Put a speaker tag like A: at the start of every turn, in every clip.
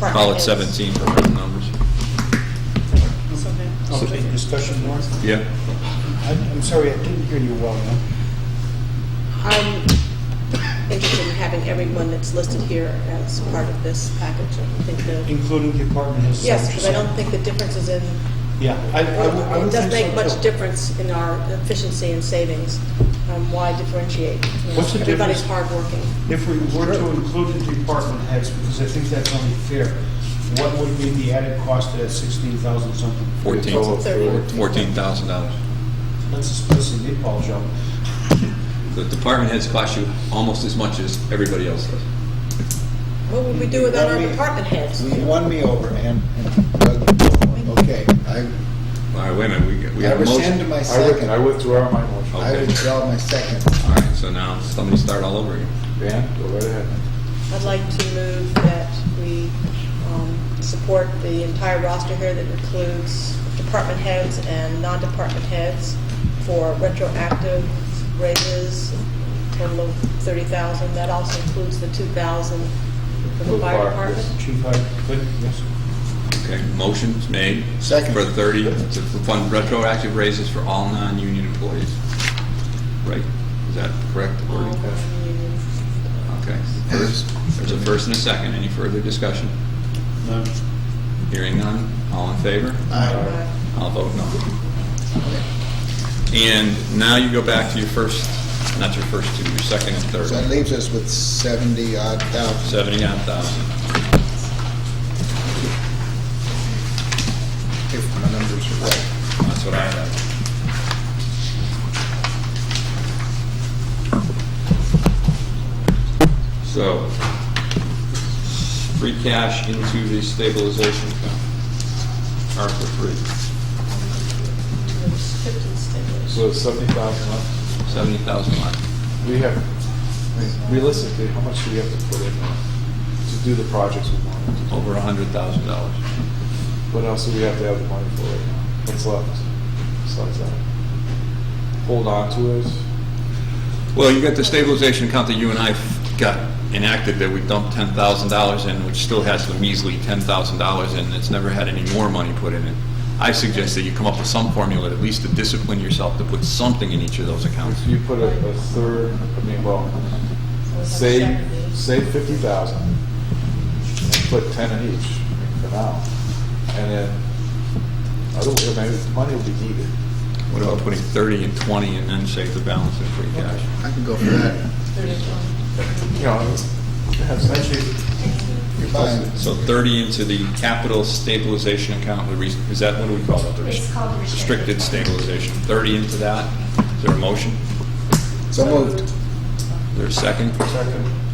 A: Call it 17 for round numbers.
B: Okay, discussion more?
A: Yeah.
B: I'm I'm sorry, I didn't hear you well enough.
C: I'm interested in having everyone that's listed here as part of this package. I think the,
B: Including the apartment has.
C: yes, because I don't think the difference is in,
B: Yeah. I- I would- I
C: it
B: would
C: doesn't
B: think
C: make
B: so,
C: much
B: too.
C: difference in our efficiency and savings. Um, Why differentiate? You know,
B: What's the
C: Everybody's
B: difference?
C: hardworking.
B: If we were to include the apartment heads, because I think that's only fair, what would be the added cost of that sixteen thousand something?
A: 14,
C: Thirty.
A: $14,000.
B: That's a splitting meatball job.
A: The department heads cost you almost as much as everybody else does.
C: What would we do without our
D: Let me-
C: department heads?
D: You won me over, and, and Doug, okay, I,
A: All right, wait a minute, we got- we
D: I
A: got a motion.
D: rescind my
E: I wi- I
D: second.
E: withdraw my motion.
D: I
A: Okay.
D: withdraw my second.
A: All right, so now somebody start all over again.
E: Dan, go right ahead.
C: I'd like to move that we um, support the entire roster here that includes department heads and non-department heads for retroactive raises, total of 30,000. That also includes the 2,000 for
E: For
C: the
E: the
C: fire
E: fire,
C: department.
B: Chief, I, good, yes.
A: Okay, motion's made.
D: Second.
A: For 30, to fund retroactive raises for all non-union employees. Right? Is that correct?
C: All
A: wording?
C: non-union.
A: Okay, first, there's a first and a second. Any further discussion?
B: No.
A: Hearing none, all in favor?
D: Aye.
C: Uh,
A: I'll vote no. And now you go back to your first, not your first two, your second and
D: So that
A: third.
D: leaves us with seventy odd thousand.
A: Seventy-nine thousand.
D: If my numbers are right.
A: That's what I have. So, free cash into the stabilization account. ARPA free,
C: there's 15 stimulus.
E: So it's seventy thousand left.
A: seventy thousand left.
E: We have, I mean, realistically, how much do we have to put in now to do the projects we want to do?
A: over a hundred thousand dollars.
E: What else do we have to have the money for right now? What's left besides that? Hold on to it?
A: Well, you got the stabilization account that you and I got enacted that we dumped ten thousand dollars in, which still has the measly ten thousand dollars in, it's never had any more money put in it. I suggest that you come up with some formula, at least to discipline yourself to put something in each of those accounts.
E: If you put a, a third, I mean, well, say, say fifty thousand, and put ten in each for now. And then, I don't, I mean, money will be needed.
A: What about putting thirty and twenty and then save the balance in free cash?
D: I can go for that.
E: You know, have some-
D: You're fine.
A: So thirty into the capital stabilization account, would re- is that, what do we call it? The res-
F: It's called restricted.
A: Restricted stabilization, thirty into that, is there a motion?
D: So moved.
A: Is there a second?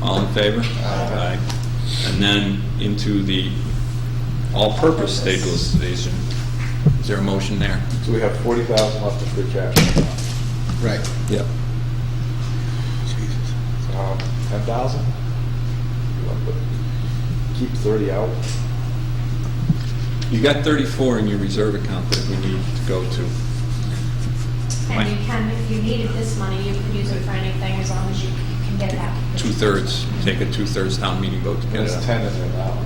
A: All in favor?
D: Aye.
A: Aye. And then into the all-purpose stabilization, is there a motion there?
E: So we have forty thousand left in free cash. right
D: Right.
A: Yep.
E: now. Um, ten thousand? Keep thirty out.
A: You got 34 in your reserve account that we need to go to.
F: And you can, if you needed this money, you could use it for anything as long as you can get that.
A: Two-thirds, take a two-thirds town meeting vote to get it.
E: There's ten in there now.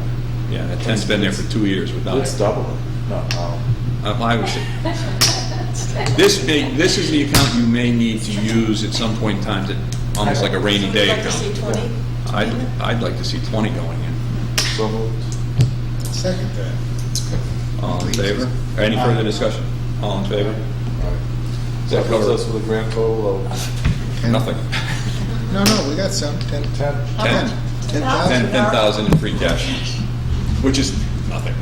A: Yeah, that 10's been there for two years without
E: Let's
A: it.
E: double it. No, um,
A: Uh, I would say- This may, this is the account you may need to use at some point in time, that- almost like a rainy day
C: Would you like to see
A: account.
C: 20?
A: I'd, I'd like to see 20 going in.
E: so moved.
D: Second that.
A: All in favor? Any further discussion? All in favor?
E: All right. So that leaves us with a grand total of
D: Ten-
A: Nothing.
D: No, no, we got some, ten,
E: ten.
A: Ten.
D: ten
A: Ten,
D: thousand.
A: ten thousand in free cash, which is nothing.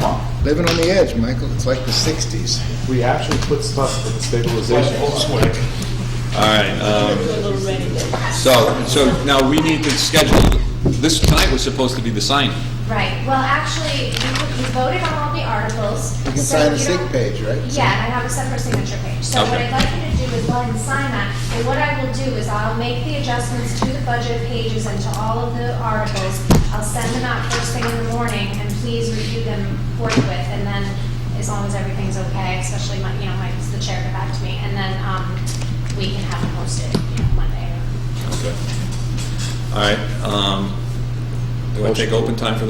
E: Come on.
D: Living on the edge, Michael, it's like the sixties.
E: We actually put stuff in the stabilization.
A: All right,
C: Do
A: um,
C: a little rainy day.
A: so, so now we need to schedule, this tonight was supposed to be the signing.
F: Right, well, actually, you you voted on all the articles.
D: You can
F: so
D: sign the
F: you
D: sig
F: don't-
D: page, right?
F: Yeah, and I have a separate signature page. So what
A: Okay.
F: I'd like you to do is go ahead and sign that. And what I will do is I'll make the adjustments to the budget pages and to all of the articles. I'll send them out first thing in the morning and please review them forthwith. And then as long as everything's okay, especially my, you know, Mike's the chair, get back to me. And then, um, we can have them posted, you know, Monday or
A: Okay. All right, um, do I take open time for